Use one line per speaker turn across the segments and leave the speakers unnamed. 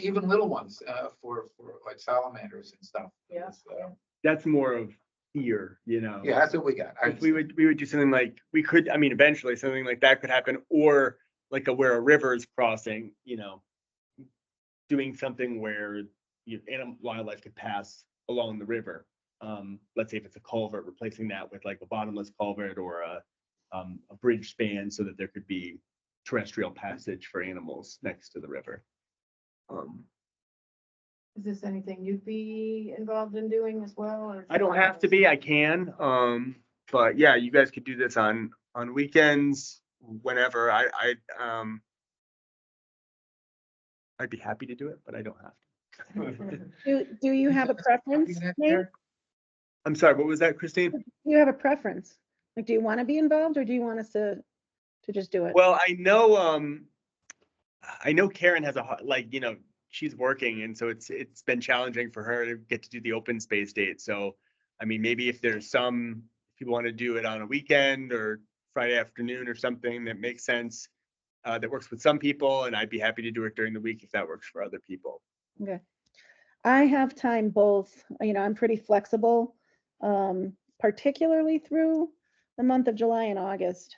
even little ones, uh, for, for like salamanders and stuff.
Yeah.
It's, uh,
that's more of fear, you know?
Yeah, that's what we got. I
If we would, we would do something like, we could, I mean, eventually something like that could happen, or like a where a river is crossing, you know. Doing something where you, animal, wildlife could pass along the river. Um, let's say if it's a culvert, replacing that with like a bottomless culvert or a, um, a bridge span so that there could be terrestrial passage for animals next to the river. Um,
Is this anything you'd be involved in doing as well? or
I don't have to be, I can, um, but yeah, you guys could do this on, on weekends, whenever, I, I, um. I'd be happy to do it, but I don't have to.
Do, do you have a preference, Nate? Do
I'm sorry, what was that, Christine?
You have a preference? Like, do you want to be involved or do you want us to, to just do it?
Well, I know, um, I know Karen has a, ho- like, you know, she's working, and so it's, it's been challenging for her to get to do the open space date, so. I mean, maybe if there's some, if you want to do it on a weekend or Friday afternoon or something that makes sense. Uh, that works with some people and I'd be happy to do it during the week if that works for other people.
I have time both, you know, I'm pretty flexible, um, particularly through the month of July and August.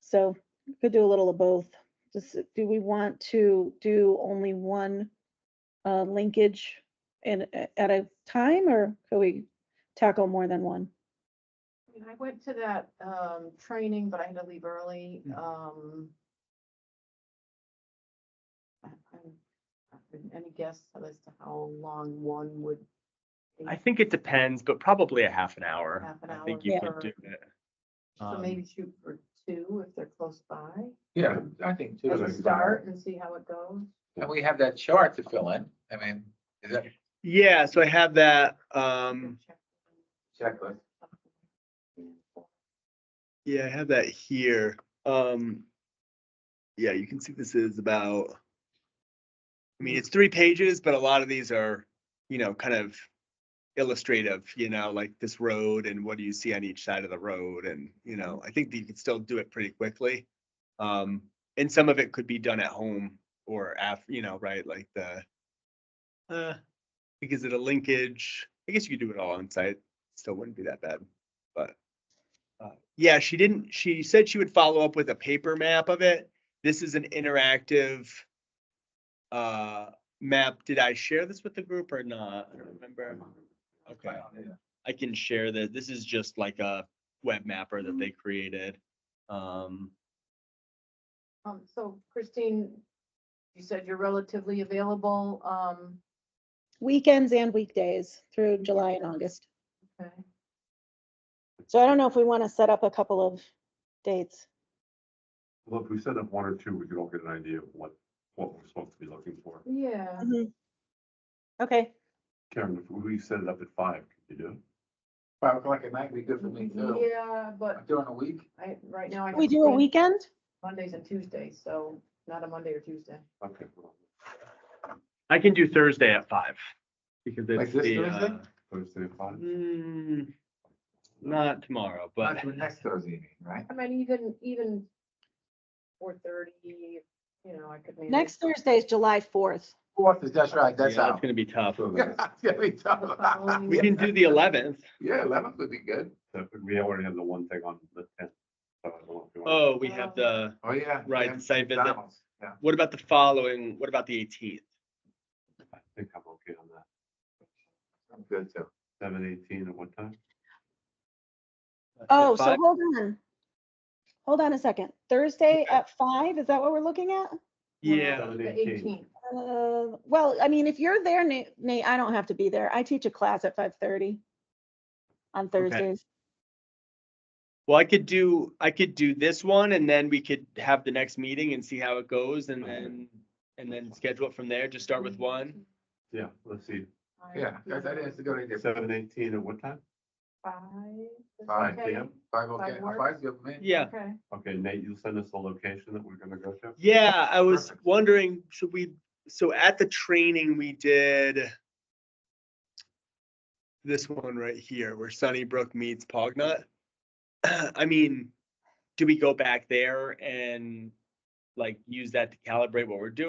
So could do a little of both. Just, do we want to do only one uh, linkage in, a- at a time or could we tackle more than one?
I mean, I went to that, um, training, but I had to leave early,
Mm.
um. I- I'm- I'm- Any guess as to how long one would?
I
take?
think it depends, but probably a half an hour.
Half an
I think
hour
you
for-
could do it.
So
Um,
maybe shoot for two if they're close by,
Yeah, I think too.
as a
is-
start and see how it goes.
And we have that chart to fill in. I mean, is that
Yeah, so I have that,
Good
um,
check.
checklist?
yeah, I have that here. Um. Yeah, you can see this is about. I mean, it's three pages, but a lot of these are, you know, kind of illustrative, you know, like this road and what do you see on each side of the road? And, you know, I think that you could still do it pretty quickly. Um, and some of it could be done at home or after, you know, right, like the. Uh, like is it a linkage? I guess you could do it all on site. Still wouldn't be that bad, but. uh, Yeah, she didn't, she said she would follow up with a paper map of it. This is an interactive. Uh, map. Did I share this with the group or not? I don't remember. Okay. I can share that. This is just like a web mapper that they created. Um,
Um, so Christine, you said you're relatively available, um,
Weekends and weekdays through July and August.
okay.
So I don't know if we want to set up a couple of dates.
Well, if we set up one or two, we could all get an idea of what, what we're supposed to be looking for.
Yeah.
Okay,
Karen, if we set it up at five, could you do? it?
Five o'clock at night, be good for me too.
Yeah, but
During the week,
I, right now. I
we
have
do a
plans
weekend?
Mondays and Tuesdays, so not a Monday or Tuesday.
Okay. well,
I can do Thursday at five. Because
Like
it's
this
the,
Thursday?
uh,
Thursday at five?
mm, not tomorrow, but.
not till next Thursday, you mean, right?
I mean, even, even four thirty, you know, I could. manage.
Next Thursday is July fourth.
Fourth is, that's right, that's
Yeah, It's
out.
gonna be tough.
So
Yeah,
that,
it's gonna be tough.
Oh.
We can do the eleventh.
Yeah, eleventh would be good.
that- we already have the one thing on the tenth. so I don't know if you want-
Oh, we have the,
Oh, yeah.
right,
yeah,
the site visit.
McDonald's, Yeah.
What about the following? What about the eighteenth?
I think I'm okay on that.
I'm good too.
Seven eighteen at what time?
Oh, so hold on. Hold on a second. Thursday at five, is that what we're looking at?
Yeah,
Seven
The
eighteen.
eighteenth,
Uh, well, I mean, if you're there, Nate, Nate, I don't have to be there. I teach a class at five thirty on Thursdays.
well, I could do, I could do this one and then we could have the next meeting and see how it goes and then. And then schedule it from there. Just start with
Mm.
one.
Yeah, let's see,
Yeah, that, that is a good idea.
seven eighteen at what time?
Five. is
Five
okay?
p.m.
Five, okay,
Five works.
five's good for me.
Yeah,
Okay.
Okay, Nate, you'll send us the location that we're gonna go to?
yeah, I was
Perfect.
wondering, should we, so at the training we did. This one right here where Sunnybrook meets Pognut. I mean, do we go back there and like use that to calibrate what we're doing?